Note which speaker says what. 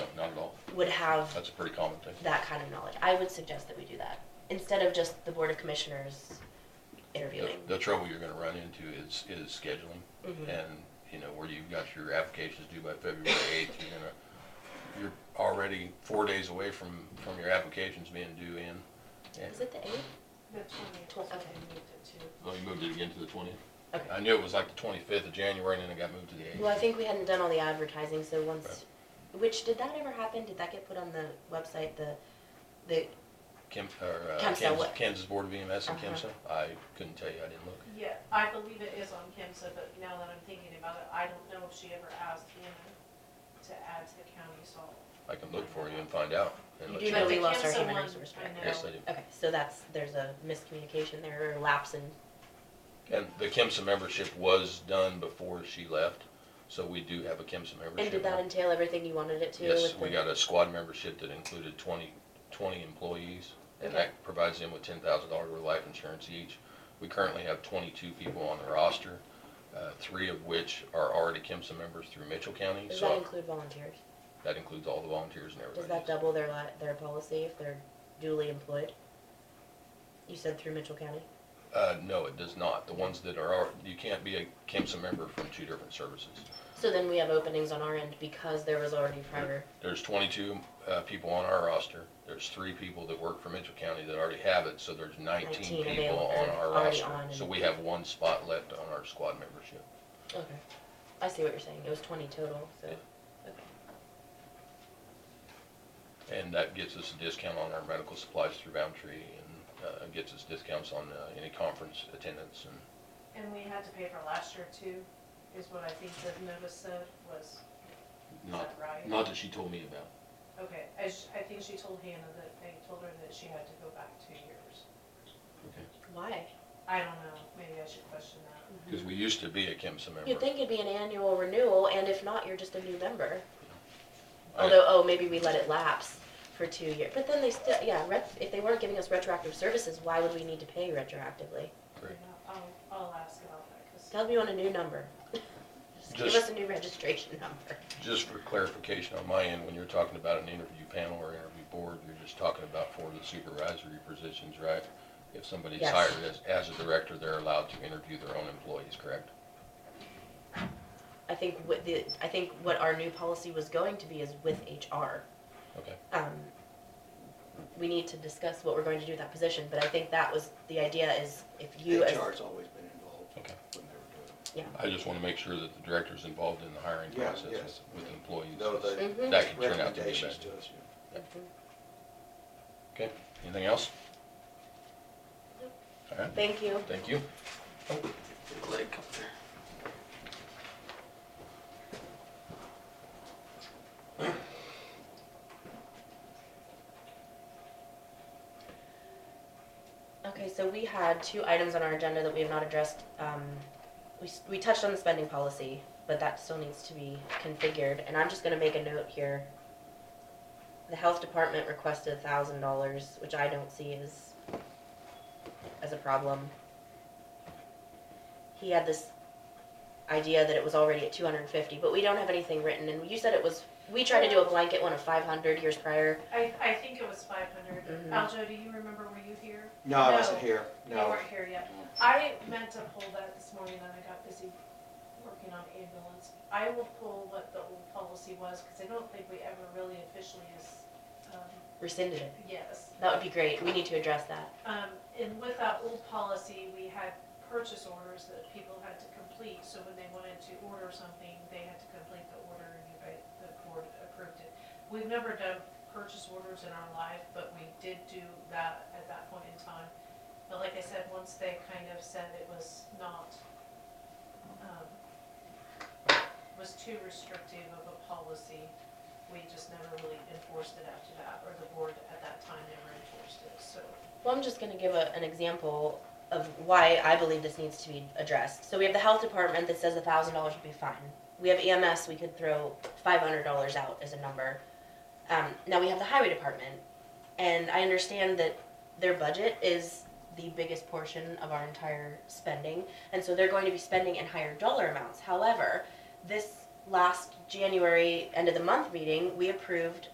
Speaker 1: would have
Speaker 2: That's a pretty common thing.
Speaker 1: that kind of knowledge. I would suggest that we do that instead of just the board of commissioners interviewing.
Speaker 2: The- The trouble you're gonna run into is, is scheduling.
Speaker 1: Mhm.
Speaker 2: And, you know, where you've got your applications due by February eighth, you're gonna, you're already four days away from, from your applications being due in. And-
Speaker 1: Is it the eighth?
Speaker 3: The twentieth,
Speaker 1: Twen- okay.
Speaker 2: Oh, you moved it again to the twentieth?
Speaker 1: Okay.
Speaker 2: I knew it was like the twenty-fifth of January and then it got moved to the eighth.
Speaker 1: Well, I think we hadn't done all the advertising, so once, which, did that ever happen? Did that get put on the website, the, the,
Speaker 2: Kim, or, uh,
Speaker 1: Kemsa,
Speaker 2: Kansas,
Speaker 1: what-
Speaker 2: Kansas Board of EMS and
Speaker 1: Uh-huh.
Speaker 2: Kimsa, I couldn't tell you, I didn't look.
Speaker 3: Yeah, I believe it is on Kimsa, but now that I'm thinking about it, I don't know if she ever asked Hannah to add to the county salt.
Speaker 2: I can look for you and find out and
Speaker 1: you
Speaker 2: let
Speaker 1: do
Speaker 2: you
Speaker 1: know
Speaker 3: But
Speaker 2: know.
Speaker 1: we
Speaker 3: the
Speaker 1: lost our
Speaker 3: Kemsa
Speaker 1: human
Speaker 3: one,
Speaker 1: resource
Speaker 3: I
Speaker 1: director?
Speaker 3: know.
Speaker 2: Yes, I do.
Speaker 1: Okay, so that's, there's a miscommunication there, or lapse in,
Speaker 2: And the Kimsa membership was done before she left, so we do have a Kimsa membership.
Speaker 1: and did
Speaker 2: now.
Speaker 1: that entail everything you wanted it to?
Speaker 2: Yes,
Speaker 1: with
Speaker 2: we
Speaker 1: the-
Speaker 2: got a squad membership that included 20 20 employees, and
Speaker 1: Okay.
Speaker 2: that provides them with ten thousand dollars worth of life insurance each. We currently have twenty-two people on the roster, uh, three of which are already KIMSA members through Mitchell County,
Speaker 1: Does that
Speaker 2: so
Speaker 1: include volunteers?
Speaker 2: that includes all the volunteers and
Speaker 1: Does
Speaker 2: everybody.
Speaker 1: that double their li, their policy if they're duly employed? You said through Mitchell County?
Speaker 2: Uh, no, it does not. The ones that are, al- you can't be a KIMSA member from two different services.
Speaker 1: So then we have openings on our end because there was already prior,
Speaker 2: There's twenty-two, uh, people on our roster. There's three people that work for Mitchell County that already have it, so there's
Speaker 1: 19
Speaker 2: nineteen people
Speaker 1: available,
Speaker 2: on
Speaker 1: or
Speaker 2: our
Speaker 1: already
Speaker 2: roster.
Speaker 1: on
Speaker 2: So
Speaker 1: and-
Speaker 2: we have one spot left on our squad membership.
Speaker 1: okay. I see what you're saying, it was twenty total, so,
Speaker 2: Yeah.
Speaker 1: okay.
Speaker 2: And that gets us a discount on our medical supplies through Boundtree and, uh, gets us discounts on, uh, any conference attendance and,
Speaker 3: And we had to pay for last year too, is what I think the notice said was, is
Speaker 2: not,
Speaker 3: that right?
Speaker 2: not that she told me about.
Speaker 3: Okay, I, sh- I think she told Hannah that, they told her that she had to go back two years.
Speaker 1: Why?
Speaker 3: I don't know, maybe I should question that.
Speaker 2: Cause we used to be a KIMSA member.
Speaker 1: You'd think it'd be an annual renewal, and if not, you're just a new member.
Speaker 2: I-
Speaker 1: Although, oh, maybe we let it lapse for two years, but then they still, yeah, ret- if they weren't giving us retroactive services, why would we need to pay retroactively?
Speaker 2: Right.
Speaker 3: I'll, I'll ask about that, cause.
Speaker 1: Tell me on a new number. Just give
Speaker 2: Just-
Speaker 1: us a new registration number.
Speaker 2: Just for clarification on my end, when you're talking about an interview panel or interview board, you're just talking about for the supervisory positions, right? If somebody's
Speaker 1: Yes.
Speaker 2: hired as, as a director, they're allowed to interview their own employees, correct?
Speaker 1: I think what the, I think what our new policy was going to be is with HR.
Speaker 2: Okay.
Speaker 1: Um, we need to discuss what we're going to do with that position, but I think that was, the idea is if you as.
Speaker 4: HR's always been involved
Speaker 2: Okay.
Speaker 4: when they were doing
Speaker 2: I just wanna make sure that the director's involved in the hiring
Speaker 4: Yeah,
Speaker 2: process
Speaker 4: yes.
Speaker 2: with- with employees.
Speaker 4: it. Though the
Speaker 1: Mhm.
Speaker 2: That could turn out to be
Speaker 4: recommendations
Speaker 2: bad.
Speaker 4: to us, yeah.
Speaker 1: Mhm.
Speaker 2: Okay, anything else? All right,
Speaker 1: Thank you.
Speaker 2: thank you.
Speaker 1: Okay, so we had two items on our agenda that we have not addressed. Um, we, s- we touched on the spending policy, but that still needs to be configured, and I'm just gonna make a note here. The health department requested thousand dollars, which I don't see as, as a problem. He had this idea that it was already at two hundred and fifty, but we don't have anything written, and you said it was, we tried to do a blanket one of five hundred years prior.
Speaker 3: I, I think it was five hundred.
Speaker 1: Mhm.
Speaker 3: Aljo, do you remember, were you here?
Speaker 4: No, I
Speaker 3: No.
Speaker 4: wasn't here,
Speaker 3: You
Speaker 4: no.
Speaker 3: weren't here yet.
Speaker 4: No.
Speaker 3: I meant to pull that this morning and I got busy working on ambulance. I will pull what the old policy was, cause I don't think we ever really officially is, um,
Speaker 1: Rescinded it.
Speaker 3: yes.
Speaker 1: That would be great. We need to address that.
Speaker 3: Um, and with that old policy, we had purchase orders that people had to complete, so when they wanted to order something, they had to complete the order and you guys, the board approved it. We've never done purchase orders in our life, but we did do that at that point in time. But like I said, once they kind of said it was not, um, was too restrictive of a policy, we just never really enforced it after that, or the board at that time never enforced it, so.
Speaker 1: Well, I'm just gonna give a, an example of why I believe this needs to be addressed. So we have the health department that says a thousand dollars would be fine. We have EMS, we could throw five hundred dollars out as a number. Um, now we have the highway department, and I understand that their budget is the biggest portion of our entire spending, and so they're going to be spending in higher dollar amounts. However, this last January, end of the month meeting, we approved